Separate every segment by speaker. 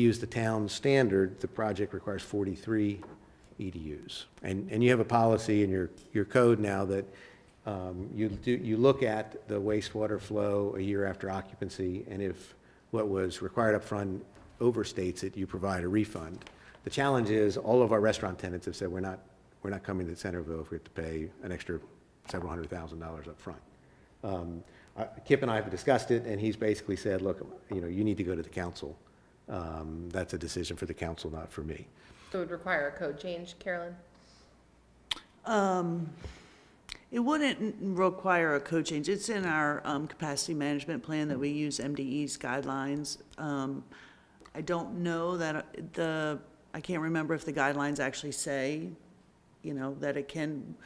Speaker 1: use the town standard, the project requires 43 EDUs. And, and you have a policy in your, your code now that um, you do, you look at the wastewater flow a year after occupancy, and if what was required upfront overstates it, you provide a refund. The challenge is, all of our restaurant tenants have said, we're not, we're not coming to Centerville if we have to pay an extra several hundred thousand dollars upfront. Um, I- Kip and I have discussed it, and he's basically said, look, you know, you need to go to the council. Um, That's a decision for the council, not for me.
Speaker 2: So it would require a code change, Carolyn?
Speaker 3: It wouldn't require a code change. It's in our um, capacity management plan that we use MDE's guidelines. Um, I don't know that uh, the, I can't remember if the guidelines actually say, you know, that it can,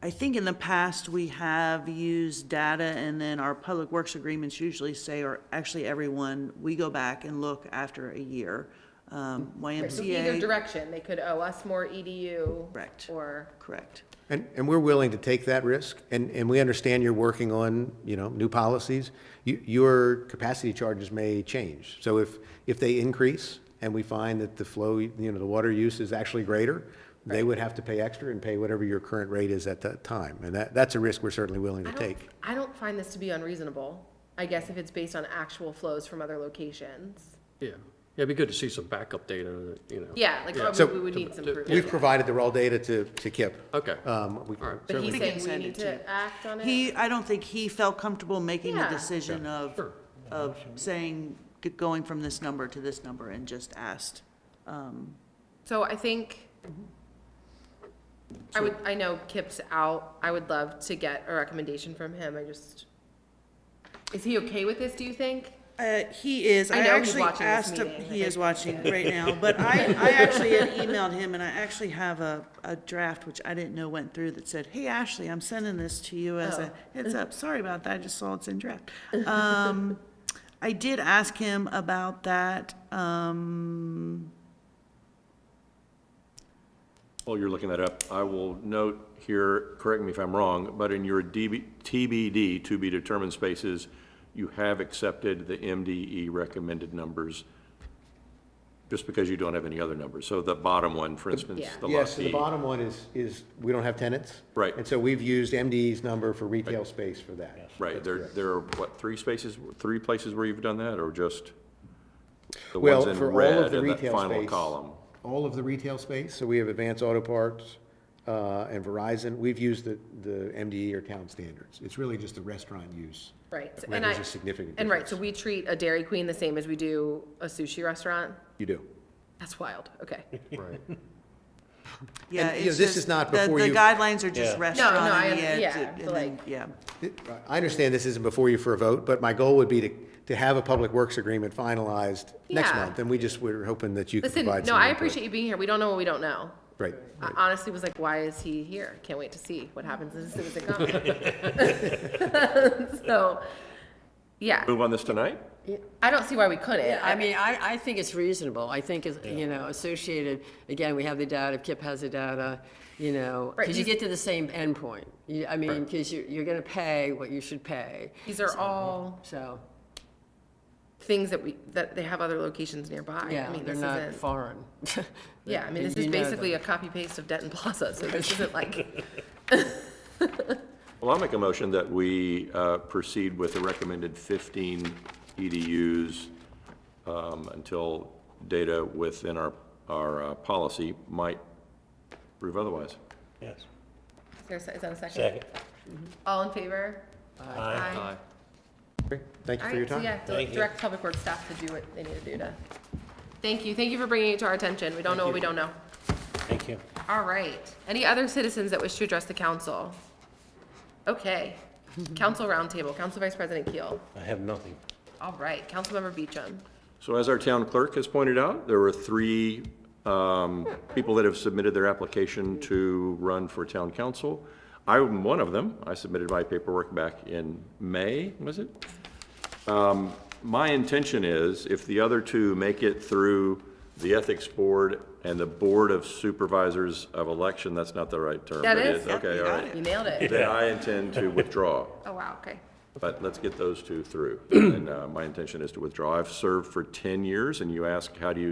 Speaker 3: I think in the past, we have used data, and then our public works agreements usually say, or actually everyone, we go back and look after a year. Um,
Speaker 2: Right, So either
Speaker 3: YMCA,
Speaker 2: direction, they could owe us more EDU.
Speaker 3: Correct.
Speaker 2: Or,
Speaker 3: correct.
Speaker 1: And, and we're willing to take that risk, and, and we understand you're working on, you know, new policies. You- Your capacity charges may change. So if, if they increase and we find that the flow, you know, the water use is actually greater, they would have to pay extra and pay whatever your current rate is at that time. And that, that's a risk we're certainly willing
Speaker 2: I
Speaker 1: to
Speaker 2: don't,
Speaker 1: take.
Speaker 2: I don't find this to be unreasonable, I guess if it's based on actual flows from other locations.
Speaker 4: Yeah, yeah, it'd be good to see some backup data, that, you know.
Speaker 2: Yeah, like,
Speaker 4: Yeah.
Speaker 2: probably
Speaker 1: So-
Speaker 2: we would need some
Speaker 4: Yeah.
Speaker 2: proof.
Speaker 1: We've provided the raw data to, to Kip.
Speaker 4: Okay.
Speaker 1: Um, we
Speaker 4: All right.
Speaker 2: Uh, But he's
Speaker 1: certainly-
Speaker 3: can
Speaker 2: saying we
Speaker 3: send
Speaker 2: need
Speaker 3: it
Speaker 2: to
Speaker 3: to-
Speaker 2: act on it?
Speaker 3: He, I don't think he felt comfortable making the
Speaker 2: Yeah.
Speaker 3: decision of,
Speaker 4: Sure.
Speaker 3: of saying, g- going from this number to this number and just asked.
Speaker 2: So I think, I would, I know Kip's out, I would love to get a recommendation from him, I just, is he okay with this, do you think?
Speaker 3: Uh, he is,
Speaker 2: I
Speaker 3: I
Speaker 2: know he's
Speaker 3: actually
Speaker 2: watching this
Speaker 3: asked, him-
Speaker 2: meeting, I
Speaker 3: he is
Speaker 2: think.
Speaker 3: watching right now, but I, I actually had emailed him and I actually have a, a draft, which I didn't know went through that said, hey, Ashley, I'm sending this to you as
Speaker 2: Oh.
Speaker 3: a heads up, sorry about that, I just saw it's in draft. Um, I did ask him about that, um,
Speaker 5: While you're looking that up, I will note here, correct me if I'm wrong, but in your DB TBD, to be determined spaces, you have accepted the MDE recommended numbers, just because you don't have any other numbers. So the bottom one, for instance,
Speaker 2: Yeah.
Speaker 5: the lot D.
Speaker 1: Yes, so the bottom one is, is, we don't have tenants.
Speaker 5: Right.
Speaker 1: And so we've used MD's number for retail space for that.
Speaker 5: Right, there, there are, what, three spaces, three places where you've done that, or just the
Speaker 1: Well,
Speaker 5: ones in
Speaker 1: for all of
Speaker 5: red
Speaker 1: the
Speaker 5: in that
Speaker 1: retail
Speaker 5: final
Speaker 1: space.
Speaker 5: column?
Speaker 1: All of the retail space, so we have Advance Auto Parts, uh, and Verizon, we've used the, the MDE or town standards. It's really just the restaurant use.
Speaker 2: Right,
Speaker 1: Where
Speaker 2: and I.
Speaker 1: there's a significant
Speaker 2: And right, so
Speaker 1: difference.
Speaker 2: we treat a Dairy Queen the same as we do a sushi restaurant?
Speaker 1: You do.
Speaker 2: That's wild, okay.
Speaker 4: Right.
Speaker 3: Yeah,
Speaker 1: And, you know,
Speaker 3: it's
Speaker 1: this is
Speaker 3: just-
Speaker 1: not
Speaker 3: the-
Speaker 1: before you-
Speaker 3: The guidelines are just
Speaker 6: Yeah.
Speaker 3: restaurant
Speaker 2: No, no, I
Speaker 3: and
Speaker 2: under-
Speaker 3: yeah, it's-
Speaker 2: yeah,
Speaker 3: and
Speaker 2: but like-
Speaker 3: then- yeah.
Speaker 1: I understand this isn't before you for a vote, but my goal would be to, to have a public works agreement finalized next
Speaker 2: Yeah.
Speaker 1: month, and we just, we're hoping that you can
Speaker 2: Listen,
Speaker 1: provide some.
Speaker 2: no, I
Speaker 1: input.
Speaker 2: appreciate Uh, you being here. We don't know what we don't know.
Speaker 1: Right.
Speaker 2: I honestly was like, why is he here? Can't wait to see what happens as soon as it comes. So, yeah,
Speaker 5: Move on this tonight?
Speaker 2: I don't see why we couldn't.
Speaker 7: Yeah, I mean, I, I think it's reasonable. I think, it's you know, associated, again, we have the data, if Kip has the data, you know,
Speaker 2: Right,
Speaker 7: because you
Speaker 2: these-
Speaker 7: get to the same endpoint. You- I mean, because you're, you're going to pay what you should pay,
Speaker 2: These are all
Speaker 7: so,
Speaker 2: things that we, that they have other locations nearby. I
Speaker 7: yeah,
Speaker 2: mean,
Speaker 7: they're
Speaker 2: this
Speaker 7: not
Speaker 2: isn't,
Speaker 7: foreign.
Speaker 2: yeah, I mean, this
Speaker 7: You
Speaker 2: is
Speaker 7: know them.
Speaker 2: basically a copy paste of Denton Plaza, so this isn't like,
Speaker 5: Well, I'll make a motion that we uh, proceed with the recommended 15 EDUs um, until data within our, our uh, policy might prove otherwise.
Speaker 6: Yes.
Speaker 2: is there a se- is that a second?
Speaker 6: Second.
Speaker 2: All in favor?
Speaker 6: Aye.
Speaker 2: Aye.
Speaker 1: Great. Thank you
Speaker 2: All
Speaker 1: for your
Speaker 2: right, so
Speaker 1: time.
Speaker 2: yeah, di-
Speaker 6: Thank you.
Speaker 2: direct public works staff to do what they need to do to. Thank you, thank you for bringing it to our attention. We don't know what we don't know.
Speaker 6: Thank you.
Speaker 2: All right. Any other citizens that wish to address the council? Okay. Council roundtable, Council Vice President Keel.
Speaker 6: I have nothing.
Speaker 2: All right, Councilmember Beecham.
Speaker 5: So as our town clerk has pointed out, there were three um, people that have submitted their application to run for town council. I'm one of them. I submitted my paperwork back in May, was it? Um, My intention is, if the other two make it through the Ethics Board and the Board of Supervisors of Election, that's not the right term.
Speaker 2: That
Speaker 5: but it
Speaker 2: is.
Speaker 5: Okay, all right.
Speaker 2: You nailed it.
Speaker 5: Then I intend to withdraw.
Speaker 2: Oh, wow, okay.
Speaker 5: But let's get those two through. And uh, my intention is to withdraw. I've served for 10 years, and you ask, how do you